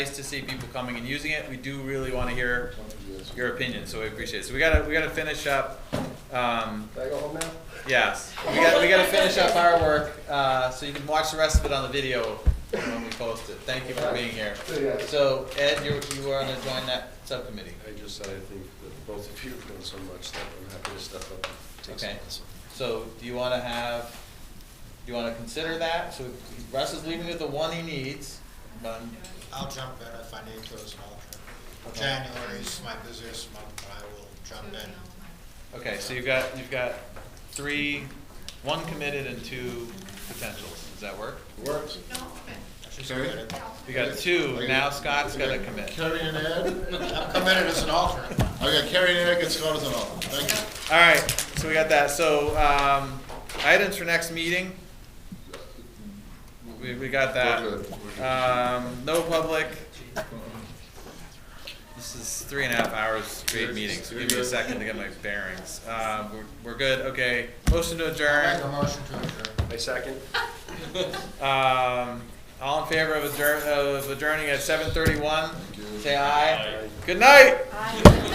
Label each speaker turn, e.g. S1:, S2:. S1: nice to see people coming and using it. We do really want to hear your opinion, so we appreciate it. So we gotta, we gotta finish up, um,
S2: Can I go home now?
S1: yes. We gotta, we gotta finish up our work, uh, so you can watch the rest of it on the video when we post it. Thank you for being here.
S2: See ya.
S1: So Ed, you're, you are gonna join that subcommittee.
S2: I just said I think that both of you have done so much that I'm happy to step up and take some
S1: Okay.
S2: lessons.
S1: So do you wanna have, do you wanna consider that? So Russ is leaving with the one he needs, but
S3: I'll jump in if I need to as an alternate.
S1: Okay.
S3: January is my busiest month, but I will jump in.
S1: Okay, so you've got, you've got three, one committed and two potentials, does that work?
S2: Works.
S3: She's
S4: Carrie?
S3: committed.
S1: You got two, now Scott's gotta commit.
S4: Carrie and Ed?
S3: I'm committed as an alternate.
S4: I got Carrie and Ed, get Scott as an alternate, thank you.
S1: Alright, so we got that, so, um, items for next meeting? We, we got that.
S4: We're good, we're good.
S1: Um, no public. This is three and a half hours straight meeting, so give me a second to get my bearings. Um, we're, we're good, okay, motion to adjourn.
S3: Make a motion to adjourn.
S2: My second.
S1: Um, all in favor of adjourn, of adjourning at seven thirty-one? Say aye.
S2: Aye.
S1: Good night.